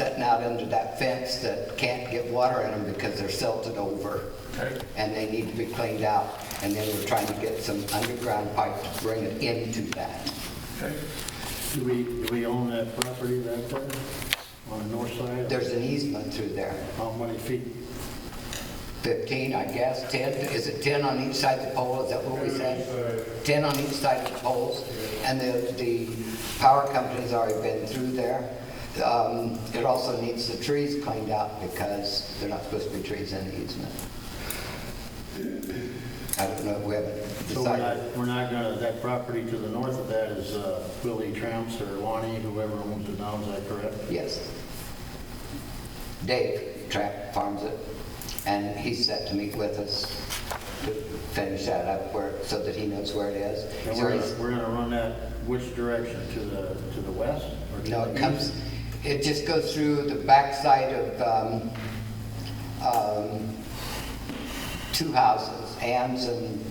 out under that fence that can't get water in them because they're silted over. Okay. And they need to be cleaned out. And then we're trying to get some underground pipe to bring it into that. Okay. Do we, do we own that property right there on the north side? There's an easement through there. How many feet? 15, I guess, 10, is it 10 on each side of the pole, is that what we said? 10 on each side of the poles, and the, the power company's already been through there. Um, It also needs the trees cleaned out because they're not supposed to be trees in the easement. I don't know, we haven't So we're not, decided. we're not gonna, that property to the north of that is uh, Willie Tramps or Lonnie, whoever owns it now, is that correct? Yes. Dave Trapp farms it, and he's set to meet with us to finish that up where, so that he knows where it is. And He's we're, already- gonna- we're gonna run that which direction, to the, to the west? or to No, the it east? comes, it just goes through the backside of um, um, two houses, Ann's and,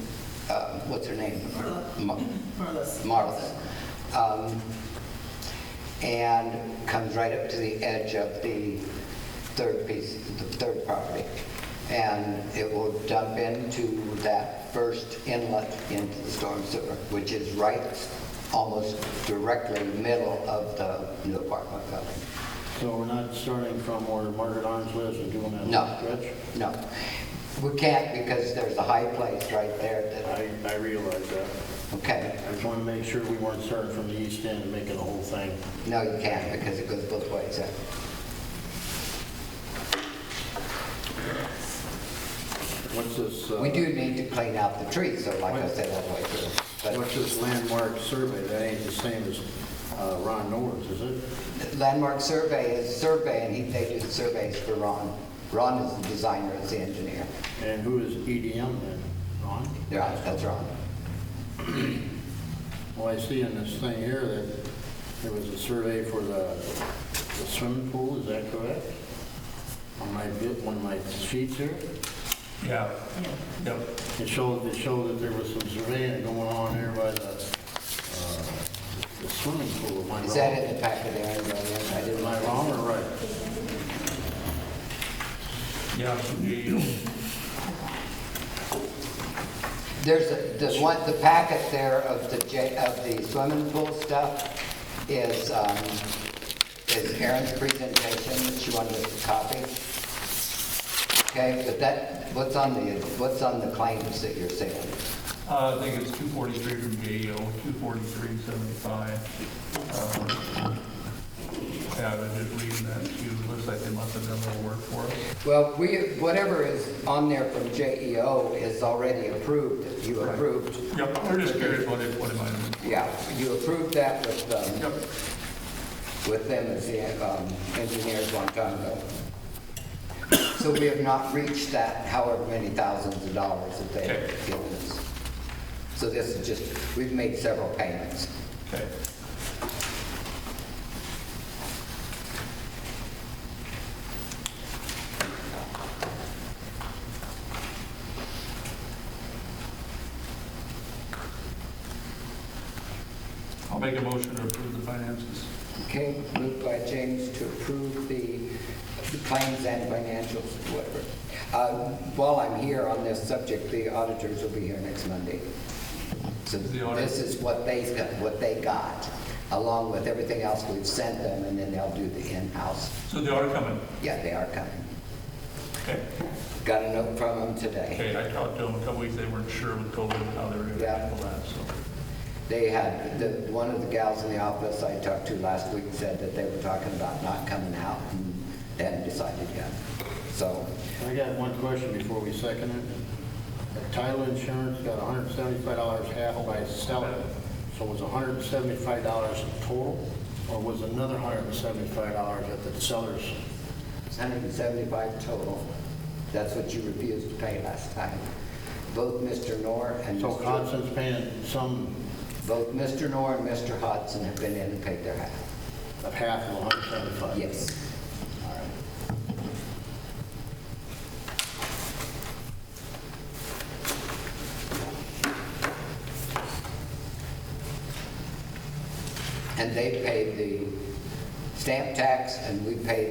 uh, what's her name? Mar- Marlis. Marla's. Um, And comes right up to the edge of the third piece, the third property. And it will dump into that first inlet into the storm sewer, which is right almost directly middle of the new apartment building. So we're not starting from where Margaret Arms lives and doing that No, little stretch? no. We can't because there's a high place right there that, I, I realize that. okay. I just wanna make sure we weren't starting from the east end and making the whole thing. No, you can't because it goes both ways. eh? What's this? uh, We do need to clean out the trees, so like I said, all the way through. What's this landmark survey? That ain't the same as uh, Ron Norris, is it? But Landmark Survey is survey, and he, they do the surveys for Ron. Ron is the designer, is the engineer. And who is EDM then? Ron? Yeah, that's Ron. Well, I see in this thing here that there was a survey for the the swimming pool, is that correct? On my bit, one of my sheets here, Yeah. Yep. it showed, it showed that there was some surveying going on here by the uh, the swimming pool. Am I Is that wrong? in the packet there? Anybody? I didn't Am I wrong or right? Yeah, E from Geo. There's, a- the one, the packet there of the, J- of the swimming pool stuff is, um, is Erin's presentation that she wanted us to copy. Okay, but that, what's on the, what's on the claims that you're seeing? Uh, I think it's 243 from E Geo, 243.75. Um, Yeah, I was just reading that too. Looks like they must have done a little work for us. Well, we, whatever is on there from JEO is already approved, you approved. Yep, we're just curious what it, what it might have been. Yeah, you approved that with, um, Yep. with them as the um, engineers long time ago. So we have not reached that however many thousands of dollars that Okay. they've given us. So this is just, we've made several payments. Okay. I'll make a motion to approve the finances. Okay, moved by James to approve the the claims and financials, whatever. Uh, While I'm here on this subject, the auditors will be here next Monday. So The audit- this is what they, what they got, along with everything else we've sent them, and then they'll do the in-house So they are coming. Yeah, they are coming. Okay. Got a note from them today. Okay, I talked to them a couple weeks, they weren't sure with COVID how they were gonna Yeah. handle that, so. They had, the, one of the gals in the office I talked to last week said that they were talking about not coming out and they hadn't decided yet. So, I got one question before we second it. The Title insurance got $175 half by seller, so it was $175 total, or was another $175 at the seller's? it's 175 total. That's what you refused to pay last time. Both Mr. Nor and So Mr. Constance paying some Both Mr. Nor and Mr. Hodson have been in and paid their half. of half of 175? Yes. All right. And they paid the stamp tax and we paid the